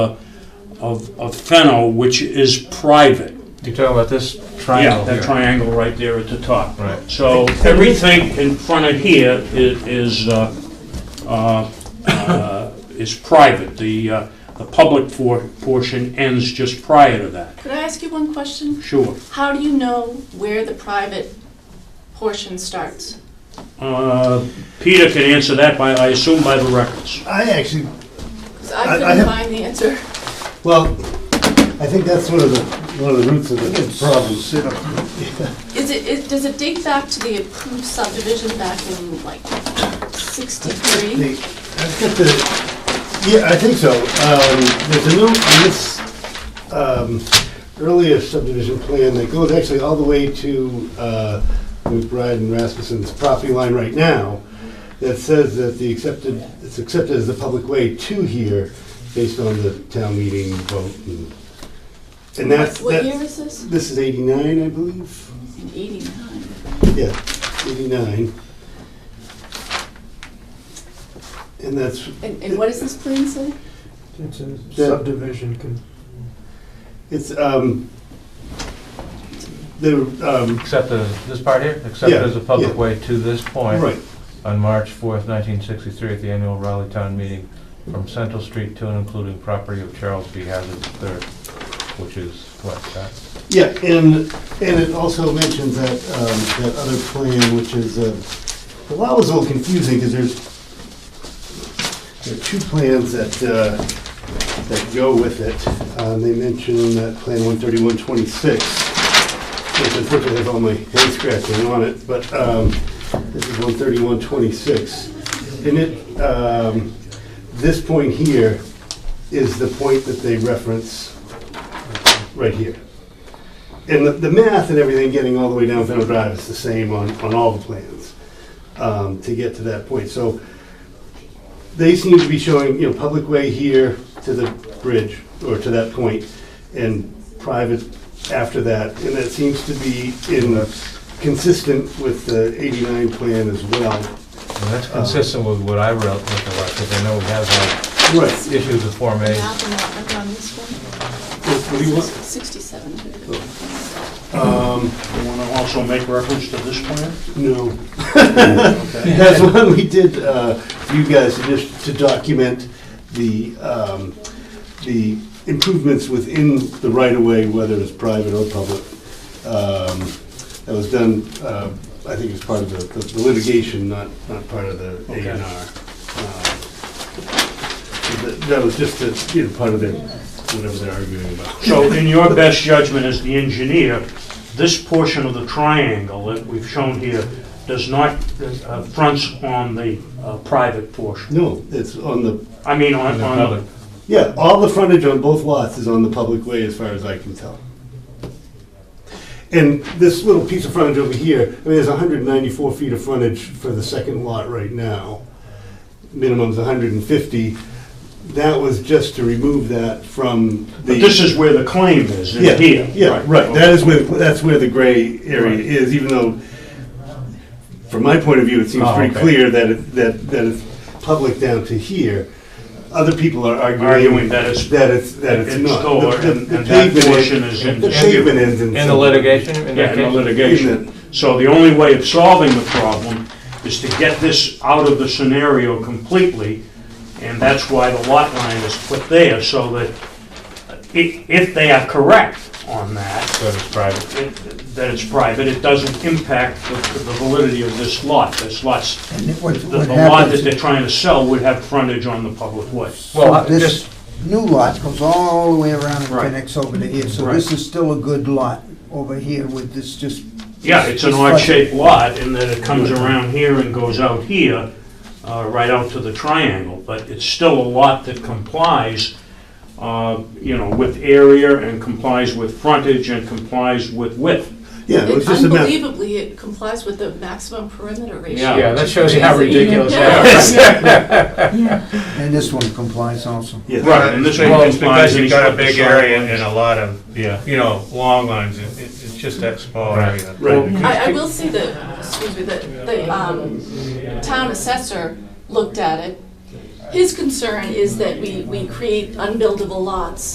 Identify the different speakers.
Speaker 1: of, of Fennel, which is private.
Speaker 2: You're talking about this
Speaker 1: Yeah,
Speaker 2: triangle
Speaker 1: that
Speaker 2: here?
Speaker 1: triangle right there at the top.
Speaker 2: Right.
Speaker 1: So everything in front of here i- is, uh, uh, uh, is private. The, uh, the public for, portion ends just prior to that,
Speaker 3: Could I ask you one question?
Speaker 1: sure.
Speaker 3: How do you know where the private portion starts?
Speaker 1: Uh, Peter can answer that by, I assume by the records.
Speaker 4: I actually,
Speaker 3: 'Cause
Speaker 4: I- I
Speaker 3: I couldn't
Speaker 4: have-
Speaker 3: find the answer.
Speaker 4: well, I think that's one of the, one of the roots of the problems.
Speaker 3: Is it, is- does it date back to the approved subdivision back in like 63?
Speaker 4: The- I've got the, yeah, I think so. Um, There's a note in this um, earlier subdivision plan that goes actually all the way to uh, McBride and Rasmussen's property line right now that says that the accepted, it's accepted as the public way to here based on the town meeting vote. and- And that's,
Speaker 3: What year
Speaker 4: that's,
Speaker 3: is this?
Speaker 4: this is 89, I believe.
Speaker 3: In 89.
Speaker 4: Yeah, 89. And that's,
Speaker 3: And, and what does this plan say?
Speaker 5: It's a
Speaker 4: Yeah.
Speaker 5: subdivision, con-
Speaker 4: it's, um, the, um,
Speaker 2: Except the, this part here, except
Speaker 4: Yeah,
Speaker 2: as a public
Speaker 4: yeah.
Speaker 2: way to this point.
Speaker 4: right,
Speaker 2: On March 4th, 1963, at the annual Raleigh Town Meeting, from Central Street to and including property of Charles B. Hazard III, which is what, that?
Speaker 4: yeah, and, and it also mentions that, um, that other plan, which is, uh, the law was a little confusing, because there's, there are two plans that, uh, that go with it. Um, They mention that Plan 13126, which unfortunately has all my head scratching on it, but um, this is 13126. And it, um, this point here is the point that they reference right here. And the- the math and everything getting all the way down Fennel Drive is the same on, on all the plans um, to get to that point. So they seem to be showing, you know, public way here to the bridge, or to that point, and private after that, and that seems to be in, consistent with the 89 plan as well.
Speaker 2: And that's
Speaker 1: Uh,
Speaker 2: consistent with what I wrote with the lot, because I know we have had
Speaker 4: Right.
Speaker 2: issues with Form
Speaker 3: The
Speaker 2: As.
Speaker 3: map and lot number on this one?
Speaker 4: What do you want?
Speaker 3: 67.
Speaker 4: Um,
Speaker 1: You want to also make reference to this plan?
Speaker 4: no.
Speaker 1: Okay.
Speaker 4: That's one we did, uh, for you guys, to just to document the, um, the improvements within the right-of-way, whether it's private or public. Um, That was done, uh, I think it was part of the the litigation, not, not part of the A
Speaker 1: Okay.
Speaker 4: and R. Uh, That was just, a, you know, part of their, whatever they're arguing about.
Speaker 1: So in your best judgment as the engineer, this portion of the triangle that we've shown here does not, uh, fronts on the uh, private portion.
Speaker 4: No, it's on the,
Speaker 1: I mean, on,
Speaker 2: the
Speaker 1: on,
Speaker 2: public.
Speaker 4: yeah, all the frontage on both lots is on the public way, as far as I can tell. And this little piece of frontage over here, I mean, there's 194 feet of frontage for the second lot right now. Minimum's 150. That was just to remove that from the.
Speaker 1: but this is where the claim is,
Speaker 4: Yeah,
Speaker 1: in here.
Speaker 4: Yeah, right, that is where, that's where the gray area
Speaker 1: Right.
Speaker 4: is, even though, from my point of view, it seems
Speaker 2: Oh,
Speaker 4: pretty
Speaker 2: okay.
Speaker 4: clear that it, that, that it's public down to here. Other people are
Speaker 1: Arguing
Speaker 4: arguing
Speaker 1: that it's-
Speaker 4: that it's, that it's
Speaker 1: it's
Speaker 4: not.
Speaker 1: lower
Speaker 4: The- the-
Speaker 1: and-
Speaker 4: the
Speaker 1: and that
Speaker 4: pavement
Speaker 1: portion is in
Speaker 4: The
Speaker 1: dispute.
Speaker 4: pavement ends in.
Speaker 2: In the
Speaker 4: some-
Speaker 2: litigation, in
Speaker 1: Yeah,
Speaker 2: that
Speaker 1: in the
Speaker 2: case?
Speaker 1: litigation. So the only way of solving the problem is to get this out of the scenario completely, and that's why the lot line is put there, so that uh, i- if they are correct on that,
Speaker 2: So it's private.
Speaker 1: it- that it's private, it doesn't impact the the validity of this lot. This lot's,
Speaker 6: And it- what,
Speaker 1: the
Speaker 6: what
Speaker 1: the lot that
Speaker 6: happens,
Speaker 1: they're trying to sell would have frontage on the public way.
Speaker 2: Well, I- just,
Speaker 6: so this new lot goes all the way around and
Speaker 1: Right.
Speaker 6: connects over to here, so
Speaker 1: Right.
Speaker 6: this is still a good lot over here with this just,
Speaker 1: Yeah, it's an
Speaker 6: It's
Speaker 1: odd-shaped lot in that it comes around here and goes out here, uh, right out to the triangle, but it's still a lot that complies, uh, you know, with area and complies with frontage and complies with width.
Speaker 4: Yeah, it was just a mess.
Speaker 3: Unbelievably, it complies with the maximum perimeter ratio.
Speaker 1: Yeah.
Speaker 2: yeah, that shows you how
Speaker 3: Crazy.
Speaker 2: ridiculous
Speaker 3: Yeah.
Speaker 2: that is.
Speaker 6: and this one complies also.
Speaker 4: Yeah.
Speaker 1: Right, and this one
Speaker 2: Well, it's
Speaker 1: complies
Speaker 2: because
Speaker 1: and
Speaker 2: you've
Speaker 1: he's
Speaker 2: got
Speaker 1: got
Speaker 2: a
Speaker 1: the
Speaker 2: big
Speaker 1: side
Speaker 2: area
Speaker 1: lines.
Speaker 2: and a lot of,
Speaker 1: Yeah.
Speaker 2: you know, long lines, It- it- it's just that small
Speaker 1: Right.
Speaker 2: area.
Speaker 4: Right.
Speaker 3: I, I will say that, excuse me, that the um, town assessor looked at it His concern is that we, we create unbuildable lots